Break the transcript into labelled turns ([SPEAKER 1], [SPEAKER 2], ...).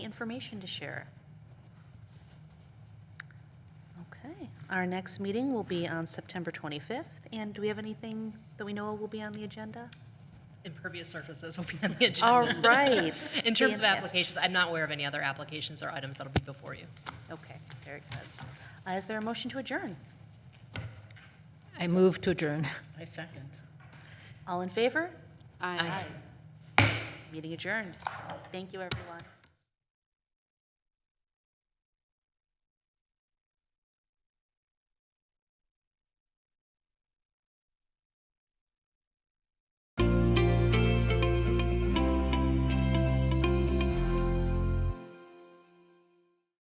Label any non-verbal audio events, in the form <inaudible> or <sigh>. [SPEAKER 1] information to share. Okay, our next meeting will be on September 25th, and do we have anything that we know will be on the agenda?
[SPEAKER 2] Impervious surfaces will be on the agenda.
[SPEAKER 1] All right. <laughs>
[SPEAKER 2] In terms of
[SPEAKER 1] Fantastic.
[SPEAKER 2] applications, I'm not aware of any other applications or items that'll be before you.
[SPEAKER 1] Okay, very good. Uh, Is there a motion to adjourn?
[SPEAKER 3] I move to adjourn.
[SPEAKER 4] I second.
[SPEAKER 1] All in favor?
[SPEAKER 3] Aye.
[SPEAKER 1] Meeting adjourned. Thank you, everyone.